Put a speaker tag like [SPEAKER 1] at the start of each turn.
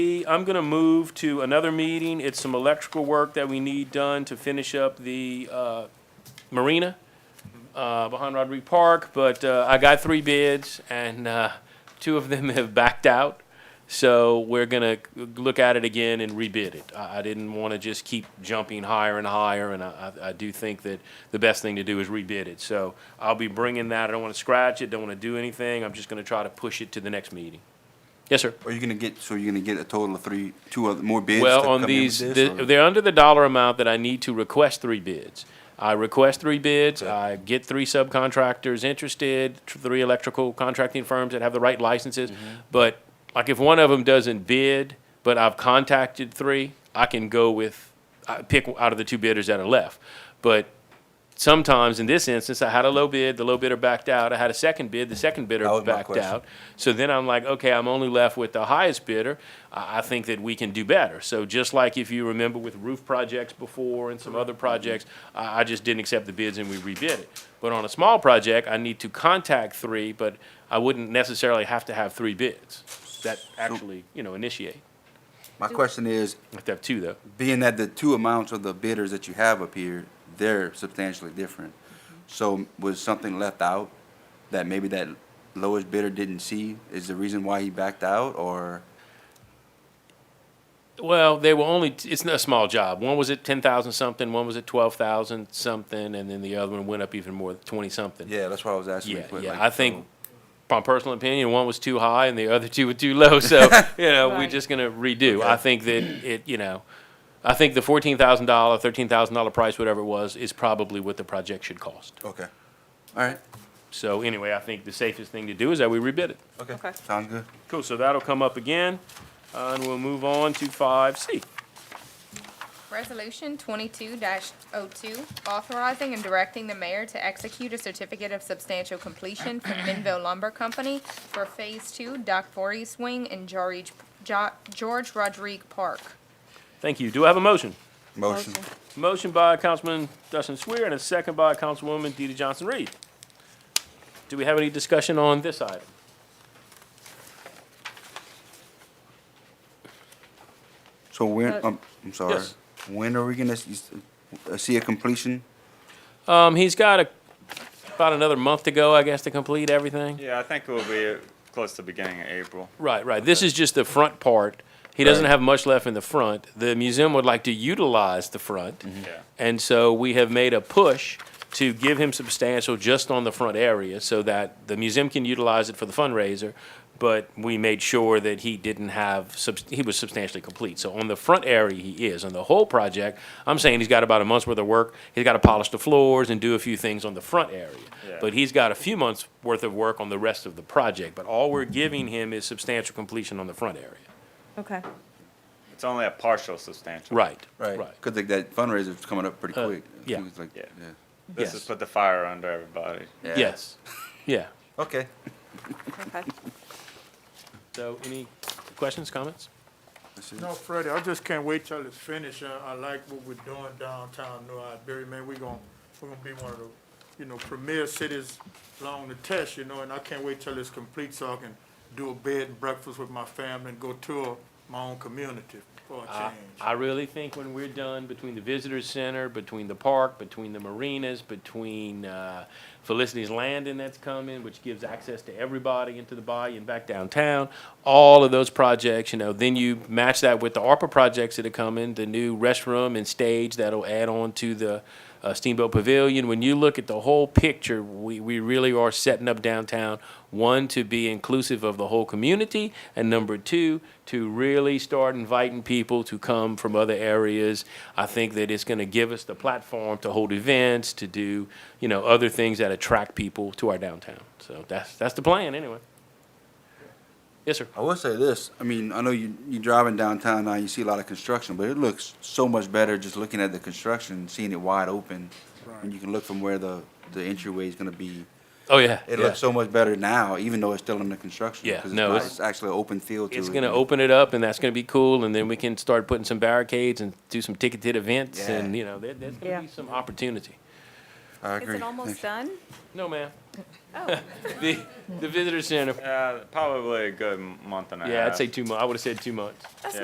[SPEAKER 1] I'm gonna move to another meeting. It's some electrical work that we need done to finish up the, uh, marina, uh, behind Rodriguez Park, but, uh, I got three bids and, uh, two of them have backed out. So we're gonna look at it again and rebid it. I, I didn't wanna just keep jumping higher and higher, and I, I I do think that the best thing to do is rebid it. So I'll be bringing that. I don't wanna scratch it, don't wanna do anything. I'm just gonna try to push it to the next meeting. Yes, sir?
[SPEAKER 2] Are you gonna get, so you're gonna get a total of three, two other, more bids? to
[SPEAKER 1] Well,
[SPEAKER 2] come in
[SPEAKER 1] on
[SPEAKER 2] with
[SPEAKER 1] these,
[SPEAKER 2] this,
[SPEAKER 1] the-
[SPEAKER 2] or-
[SPEAKER 1] they're under the dollar amount that I need to request three bids. I request three bids, I get three subcontractors interested, tr- three electrical contracting firms that have the right licenses.
[SPEAKER 2] Mm-hmm.
[SPEAKER 1] But like if one of them doesn't bid, but I've contacted three, I can go with, I pick out of the two bidders that are left. But sometimes in this instance, I had a low bid, the low bidder backed out, I had a second bid, the second bidder
[SPEAKER 2] That was my
[SPEAKER 1] backed
[SPEAKER 2] question.
[SPEAKER 1] out. So then I'm like, okay, I'm only left with the highest bidder. I, I think that we can do better. So just like if you remember with roof projects before and some other projects, I, I just didn't accept the bids and we rebid it. But on a small project, I need to contact three, but I wouldn't necessarily have to have three bids that actually, you know, initiate.
[SPEAKER 2] My question is,
[SPEAKER 1] I have to have two though.
[SPEAKER 2] being that the two amounts of the bidders that you have up here, they're substantially different. So was something left out that maybe that lowest bidder didn't see is the reason why he backed out or?
[SPEAKER 1] Well, they were only, it's not a small job. One was at ten thousand something, one was at twelve thousand something, and then the other one went up even more, twenty something.
[SPEAKER 2] Yeah, that's what I was asking.
[SPEAKER 1] Yeah,
[SPEAKER 2] but
[SPEAKER 1] yeah.
[SPEAKER 2] like,
[SPEAKER 1] I think, my personal opinion, one was too high and the other two were too low. So you know, we're
[SPEAKER 3] Right.
[SPEAKER 1] just gonna redo. I think that it, you know, I think the fourteen thousand dollar, thirteen thousand dollar price, whatever it was, is probably what the project should cost.
[SPEAKER 2] so- Okay. All right,
[SPEAKER 1] So anyway, I think the safest thing to do is that we rebid it.
[SPEAKER 2] okay.
[SPEAKER 3] Okay.
[SPEAKER 2] Sounds good.
[SPEAKER 1] Cool. So that'll come up again, uh, and we'll move on to five C.
[SPEAKER 4] Resolution twenty-two 2 authorizing and directing the mayor to execute a certificate of substantial completion for Minville Lumber Company for Phase Two, Doc Voorhees Wing and George, Jo- George Rodrigue Park.
[SPEAKER 1] Thank you. Do I have a motion?
[SPEAKER 2] Motion.
[SPEAKER 1] Motion by Councilman Dustin Swear and a second by Councilwoman DeeDee Johnson-Reed. Do we have any discussion on this item?
[SPEAKER 2] So when,
[SPEAKER 3] Uh,
[SPEAKER 2] um, I'm sorry,
[SPEAKER 1] Yes.
[SPEAKER 2] when are we gonna s- uh, see a completion?
[SPEAKER 1] Um, he's got a, about another month to go, I guess, to complete everything.
[SPEAKER 5] Yeah, I think it will be close to beginning of April.
[SPEAKER 1] Right, right. This is just the front part. He doesn't have much left in the front. The museum would like to utilize the front.
[SPEAKER 5] Yeah.
[SPEAKER 1] And so we have made a push to give him substantial just on the front area so that the museum can utilize it for the fundraiser. But we made sure that he didn't have, subs- he was substantially complete. So on the front area, he is. On the whole project, I'm saying he's got about a month's worth of work. He's got to polish the floors and do a few things on the front area.
[SPEAKER 5] Yeah.
[SPEAKER 1] But he's got a few months' worth of work on the rest of the project. But all we're giving him is substantial completion on the front area.
[SPEAKER 3] Okay.
[SPEAKER 5] It's only a partial substantial.
[SPEAKER 1] Right, right.
[SPEAKER 2] Cause like that fundraiser's coming up pretty
[SPEAKER 1] Uh,
[SPEAKER 2] quick.
[SPEAKER 1] yeah.
[SPEAKER 2] It's like-
[SPEAKER 5] Yeah.
[SPEAKER 2] yeah.
[SPEAKER 5] This
[SPEAKER 1] yes.
[SPEAKER 5] has put the fire under everybody.
[SPEAKER 2] Yeah.
[SPEAKER 1] Yes, yeah.
[SPEAKER 2] Okay.
[SPEAKER 3] Okay.
[SPEAKER 1] So any questions, comments?
[SPEAKER 2] That's it.
[SPEAKER 6] No, Freddie, I just can't wait till it's finished, and I like what we're doing downtown New Iberia, man, we gonna, we gonna be one of the, you know, premier cities along the test, you know, and I can't wait till it's complete, so I can do a bed and breakfast with my family and go tour my own community for a
[SPEAKER 1] I-
[SPEAKER 6] change.
[SPEAKER 1] I really think when we're done, between the visitor center, between the park, between the marinas, between uh, Felicity's Landing that's coming, which gives access to everybody into the bayou and back downtown, all of those projects, you know, then you match that with the ARPA projects that are coming, the new restroom and stage that'll add on to the uh, Steamboat Pavilion. When you look at the whole picture, we, we really are setting up downtown, one, to be inclusive of the whole community, and number two, to really start inviting people to come from other areas. I think that it's going to give us the platform to hold events, to do, you know, other things that attract people to our downtown. So that's, that's the plan, anyway. Yes, sir.
[SPEAKER 2] I will say this, I mean, I know you, you driving downtown now, you see a lot of construction, but it looks so much better just looking at the construction, seeing it wide open. And you can look from where the, the entryway is gonna be.
[SPEAKER 1] Oh, yeah.
[SPEAKER 2] It
[SPEAKER 1] yeah.
[SPEAKER 2] looks so much better now, even though it's still under construction.
[SPEAKER 1] Yeah,
[SPEAKER 2] 'cause
[SPEAKER 1] no,
[SPEAKER 2] not-
[SPEAKER 1] it's-
[SPEAKER 2] It's actually an open field to it.
[SPEAKER 1] It's gonna open it up, and that's gonna be cool, and then we can start putting some barricades and do some ticketed events,
[SPEAKER 2] Yeah.
[SPEAKER 1] and, you know, there, there's gonna
[SPEAKER 3] Yeah.
[SPEAKER 1] be some opportunity.
[SPEAKER 2] I agree.
[SPEAKER 3] Is it almost done?
[SPEAKER 1] No, ma'am.
[SPEAKER 3] Oh.
[SPEAKER 1] The, the visitor center,
[SPEAKER 5] Yeah, probably a good month and a half.
[SPEAKER 1] yeah, I'd say two months, I would've said two months.